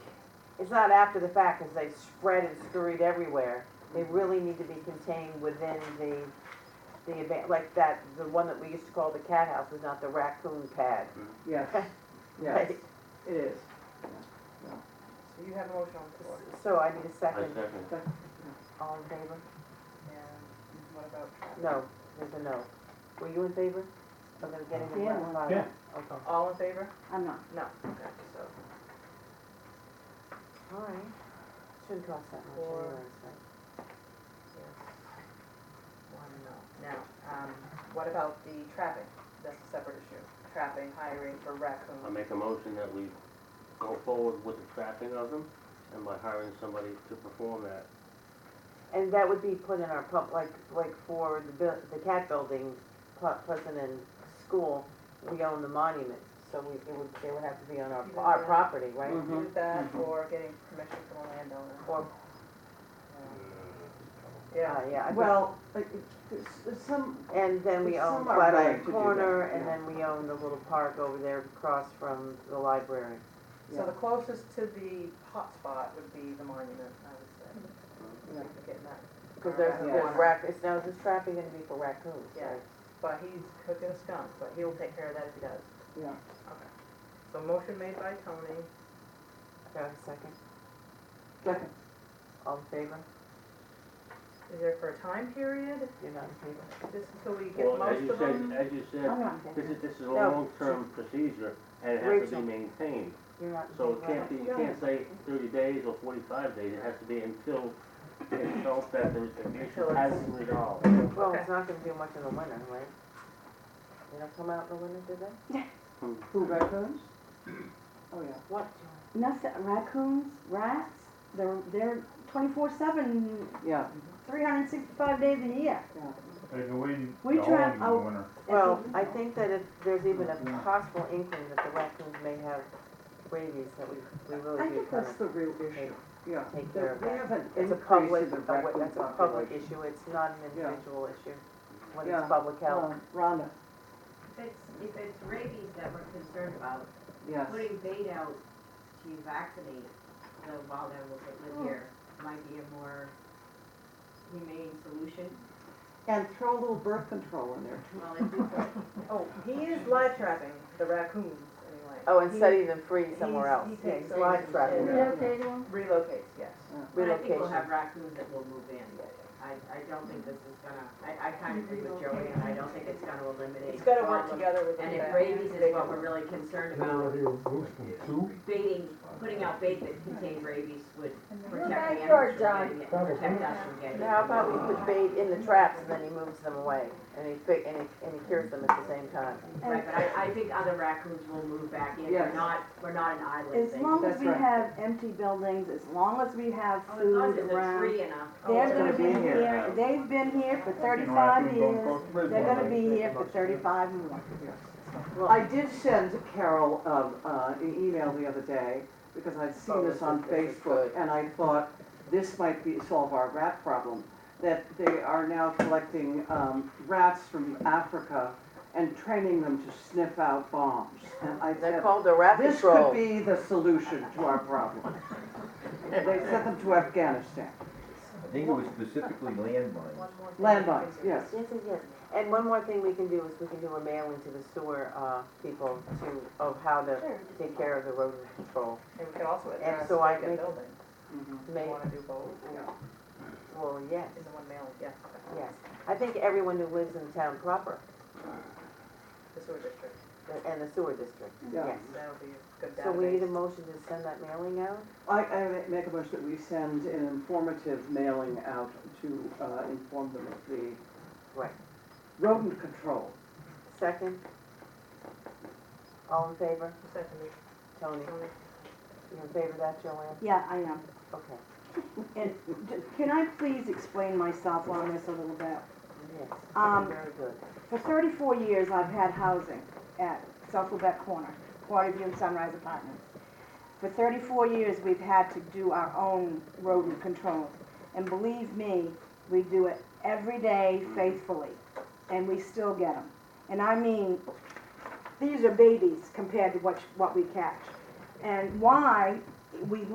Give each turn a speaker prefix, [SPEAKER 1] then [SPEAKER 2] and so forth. [SPEAKER 1] it's not after the fact, as they spread and scurried everywhere. They really need to be contained within the, the event, like that, the one that we used to call the cat house was not the raccoon pad.
[SPEAKER 2] Yes, yes, it is.
[SPEAKER 3] So you have a motion on the floor.
[SPEAKER 1] So I need a
[SPEAKER 4] I
[SPEAKER 1] second.
[SPEAKER 4] second.
[SPEAKER 1] All in favor?
[SPEAKER 3] And what about traffic?
[SPEAKER 1] No, there's a no. Were you in favor of them getting the
[SPEAKER 5] Yeah.
[SPEAKER 1] black
[SPEAKER 6] Yeah.
[SPEAKER 1] Okay.
[SPEAKER 3] All in favor?
[SPEAKER 5] I'm not.
[SPEAKER 3] No. Okay, so
[SPEAKER 1] All right. Shouldn't cost that much
[SPEAKER 3] Four.
[SPEAKER 1] anyways, right?
[SPEAKER 3] yes. One no. Now, um, what about the trapping? That's a separate issue. Trapping, hiring for
[SPEAKER 4] I
[SPEAKER 3] raccoon.
[SPEAKER 4] make a motion that we go forward with the trapping of them and by hiring somebody to perform that.
[SPEAKER 1] And that would be put in our pump, like, like for the, buil- the cat building, Ple- Pleasant and School, we own the monuments, so we, it would, they would have to be on our, our property, right?
[SPEAKER 2] Mhm.
[SPEAKER 3] Do that or getting permission from a landowner.
[SPEAKER 1] Or,
[SPEAKER 3] Um,
[SPEAKER 1] uh,
[SPEAKER 3] Yeah,
[SPEAKER 1] yeah. I think-
[SPEAKER 2] Well, like, it's- it's some,
[SPEAKER 1] And then we
[SPEAKER 2] But
[SPEAKER 1] own
[SPEAKER 2] some are going
[SPEAKER 1] Flatiron
[SPEAKER 2] to do
[SPEAKER 1] Corner,
[SPEAKER 2] that,
[SPEAKER 1] and
[SPEAKER 2] yeah.
[SPEAKER 1] then we own the little park over there across from the library.
[SPEAKER 3] so the closest to the hotspot would be the monument, I would say.
[SPEAKER 2] Yeah.
[SPEAKER 3] We're Getting that.
[SPEAKER 1] Because there's,
[SPEAKER 3] Yeah.
[SPEAKER 1] there's rac, it's, now is this trapping gonna be for raccoons,
[SPEAKER 3] Yeah.
[SPEAKER 1] right?
[SPEAKER 3] But he's cooking a skunk, but he'll take care of that if he does.
[SPEAKER 2] yeah,
[SPEAKER 3] Okay. So motion made by Tony.
[SPEAKER 1] Do I have a second?
[SPEAKER 2] second,
[SPEAKER 1] All in favor?
[SPEAKER 3] Is there for a time period?
[SPEAKER 1] You're not in favor?
[SPEAKER 3] Just until we get
[SPEAKER 4] Well, as
[SPEAKER 3] most
[SPEAKER 4] you
[SPEAKER 3] of them?
[SPEAKER 4] said, uh, as you
[SPEAKER 5] I'm
[SPEAKER 4] said,
[SPEAKER 5] not.
[SPEAKER 4] this is, this is a
[SPEAKER 1] No.
[SPEAKER 4] long-term procedure and it has to
[SPEAKER 1] Rachel.
[SPEAKER 4] be maintained.
[SPEAKER 1] You're not in
[SPEAKER 4] So it
[SPEAKER 1] favor?
[SPEAKER 4] can't be, you can't say thirty days or forty-five days, it has to be until it's felt that the the
[SPEAKER 3] Until
[SPEAKER 4] issue
[SPEAKER 3] it's-
[SPEAKER 4] has been resolved.
[SPEAKER 1] Well, it's not gonna do much in the winter, right? They don't come out in the winter, do they?
[SPEAKER 2] who raccoons? Oh, yeah.
[SPEAKER 1] What?
[SPEAKER 5] Nothing, raccoons, rats, they're, they're twenty-four seven,
[SPEAKER 2] Yeah,
[SPEAKER 5] three hundred and sixty-five days a year.
[SPEAKER 6] They go in the
[SPEAKER 5] We try-
[SPEAKER 6] home in the
[SPEAKER 5] oh.
[SPEAKER 6] winter.
[SPEAKER 1] Well, I think that if there's even a possible inkling that the raccoons may have rabies, that we, we
[SPEAKER 2] I
[SPEAKER 1] really do
[SPEAKER 2] think
[SPEAKER 1] kind
[SPEAKER 2] that's
[SPEAKER 1] of
[SPEAKER 2] the real
[SPEAKER 1] take,
[SPEAKER 2] issue, yeah.
[SPEAKER 1] take care
[SPEAKER 2] That
[SPEAKER 1] of
[SPEAKER 2] We
[SPEAKER 1] that.
[SPEAKER 2] have an
[SPEAKER 1] It's
[SPEAKER 2] increase
[SPEAKER 1] a public,
[SPEAKER 2] in the
[SPEAKER 1] a-
[SPEAKER 2] raccoon
[SPEAKER 1] that's a public
[SPEAKER 2] population.
[SPEAKER 1] issue, it's not an
[SPEAKER 2] Yeah.
[SPEAKER 1] individual issue, when
[SPEAKER 2] Yeah.
[SPEAKER 1] it's public health.
[SPEAKER 2] Um, Rhonda,
[SPEAKER 7] If it's, if it's rabies that we're concerned about,
[SPEAKER 2] yes,
[SPEAKER 7] putting bait out to vaccinate the wild animals that live here might be a more humane solution.
[SPEAKER 2] and throw a little birth control in there too.
[SPEAKER 7] Well, if we put
[SPEAKER 3] Oh, he is live trapping the raccoons anyway.
[SPEAKER 1] Oh, and
[SPEAKER 3] He
[SPEAKER 1] setting them free somewhere
[SPEAKER 3] he's-
[SPEAKER 1] else,
[SPEAKER 3] he
[SPEAKER 1] yeah,
[SPEAKER 3] takes
[SPEAKER 1] he's
[SPEAKER 3] them
[SPEAKER 1] live
[SPEAKER 3] and-
[SPEAKER 1] trapping,
[SPEAKER 2] Yeah.
[SPEAKER 1] them.
[SPEAKER 3] Relocates, yes.
[SPEAKER 7] But I think we'll
[SPEAKER 1] relocation.
[SPEAKER 7] have raccoons that will move in. I, I don't think this is gonna, I, I kind of agree with Joey, and I don't think it's gonna eliminate.
[SPEAKER 3] It's gotta work
[SPEAKER 7] problem.
[SPEAKER 3] together with the.
[SPEAKER 7] And if
[SPEAKER 3] vet.
[SPEAKER 7] rabies is what we're really concerned about,
[SPEAKER 6] Two?
[SPEAKER 7] baiting, putting out bait that contained rabies would protect the
[SPEAKER 5] backyard,
[SPEAKER 7] animals
[SPEAKER 5] John.
[SPEAKER 7] from getting it, and protect us from getting it.
[SPEAKER 1] Now, How about we put bait in the traps and then he moves them away, and he fi, and he, and he cures them at the same time?
[SPEAKER 7] Right, but I, I think other raccoons will move back in,
[SPEAKER 2] Yes.
[SPEAKER 7] we're not, we're not an island
[SPEAKER 5] As
[SPEAKER 7] thing.
[SPEAKER 5] long as
[SPEAKER 2] That's
[SPEAKER 5] we
[SPEAKER 2] right.
[SPEAKER 5] have empty buildings, as long as we have
[SPEAKER 7] Oh, As
[SPEAKER 5] food
[SPEAKER 7] long as it's a
[SPEAKER 5] around,
[SPEAKER 7] tree and a.
[SPEAKER 3] Oh, it's
[SPEAKER 5] they're
[SPEAKER 2] gonna
[SPEAKER 5] gonna
[SPEAKER 2] be
[SPEAKER 5] be
[SPEAKER 2] here.
[SPEAKER 5] here, they've been here for
[SPEAKER 6] You know,
[SPEAKER 5] thirty-five
[SPEAKER 6] raccoons don't
[SPEAKER 5] years.
[SPEAKER 6] cross the bridge
[SPEAKER 5] They're
[SPEAKER 6] one
[SPEAKER 5] gonna
[SPEAKER 6] way.
[SPEAKER 5] be here for thirty-five more.
[SPEAKER 1] Well,
[SPEAKER 2] I did send Carol, um, uh, an email the other day, because I'd
[SPEAKER 1] Oh,
[SPEAKER 2] seen this
[SPEAKER 1] this
[SPEAKER 2] on
[SPEAKER 1] is- this is
[SPEAKER 2] Facebook,
[SPEAKER 1] good.
[SPEAKER 2] and I thought this might be, solve our rat problem, that they are now collecting, um, rats from Africa and training them to sniff out bombs. And I
[SPEAKER 1] they're
[SPEAKER 2] said,
[SPEAKER 1] called the rat
[SPEAKER 2] this could
[SPEAKER 1] patrol.
[SPEAKER 2] be the solution to our problem. They sent them to Afghanistan,
[SPEAKER 8] I think it was specifically landmines.
[SPEAKER 3] One more thing we can
[SPEAKER 2] landmines,
[SPEAKER 3] do.
[SPEAKER 2] yes.
[SPEAKER 1] Yes, yes, yes. And one more thing we can do is we can do a mailing to the sewer, uh, people to, of how to take care of the rodent control.
[SPEAKER 3] And we could also address
[SPEAKER 1] so I
[SPEAKER 3] vacant
[SPEAKER 1] make-
[SPEAKER 3] buildings.
[SPEAKER 2] Mhm.
[SPEAKER 1] May,
[SPEAKER 3] Want to do both?
[SPEAKER 1] Yeah. well, yes,
[SPEAKER 3] In the one mailing, yes. okay.
[SPEAKER 1] yes. I think everyone who lives in town proper
[SPEAKER 3] The sewer district,
[SPEAKER 1] the- and the sewer district,
[SPEAKER 2] Yeah.
[SPEAKER 1] yes.
[SPEAKER 3] that'll be a good database.
[SPEAKER 1] So we need a motion to send that mailing out?
[SPEAKER 2] I, I ma- make a motion that we send an informative mailing out to uh, inform them of the
[SPEAKER 1] Right.
[SPEAKER 2] rodent control.
[SPEAKER 1] Second? All in favor?
[SPEAKER 3] Seconded.
[SPEAKER 1] Tony, you in favor of that, Joanne?
[SPEAKER 5] Yeah, I am.
[SPEAKER 1] Okay.
[SPEAKER 5] And d- can I please explain myself on this a little bit?
[SPEAKER 1] Yes,
[SPEAKER 5] Um,
[SPEAKER 1] very good.
[SPEAKER 5] For thirty-four years, I've had housing at South Lubeck Corner, Water View and Sunrise Apartments. For thirty-four years, we've had to do our own rodent control. And believe me, we do it every day faithfully, and we still get them. And I mean, these are babies compared to what, what we catch. And why we